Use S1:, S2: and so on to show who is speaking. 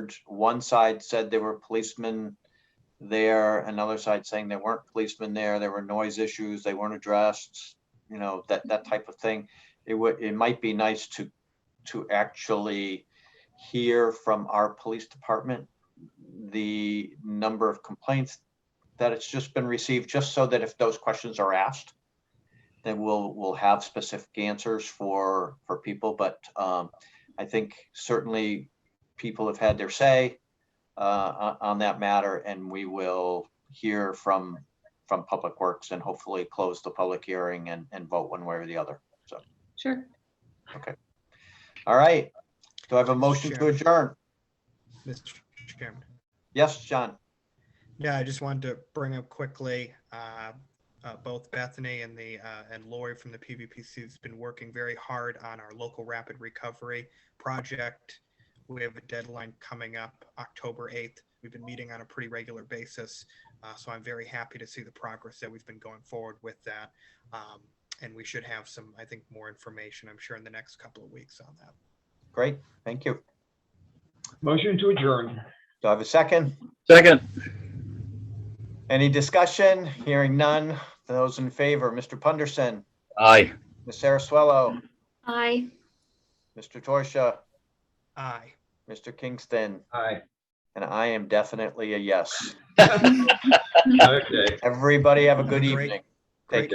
S1: which one side said there were policemen there, another side saying there weren't policemen there, there were noise issues, they weren't addressed, you know, that, that type of thing. It would, it might be nice to, to actually hear from our police department the number of complaints that it's just been received, just so that if those questions are asked, then we'll, we'll have specific answers for, for people, but, um, I think certainly people have had their say uh, on on that matter, and we will hear from, from Public Works and hopefully close the public hearing and, and vote one way or the other.
S2: Sure.
S1: All right. Do I have a motion to
S3: Chair.
S1: adjourn?
S3: Mr. Chairman.
S1: Yes, John?
S3: Yeah, I just wanted to bring up quickly, uh, uh, both Bethany and the, uh, and Lori from the PVPC has been working very hard on our local rapid recovery project. We have a deadline coming up October 8th. We've been meeting on a pretty regular basis. Uh, so I'm very happy to see the progress that we've been going forward with that. Um, and we should have some, I think, more information, I'm sure, in the next couple of weeks on that.
S1: Great, thank you.
S4: Motion to adjourn.
S1: Do I have a second?
S5: Second.
S1: Any discussion? Hearing none. Those in favor, Mr. Punderson,
S5: Aye.
S1: Ms. Saraswello,
S2: Aye.
S1: Mr. Torsia,
S3: Aye.
S1: Mr. Kingston,
S4: Aye.
S1: and I am definitely a yes.
S4: Okay.
S1: Everybody have a good
S3: Great.
S1: evening. Take
S3: Great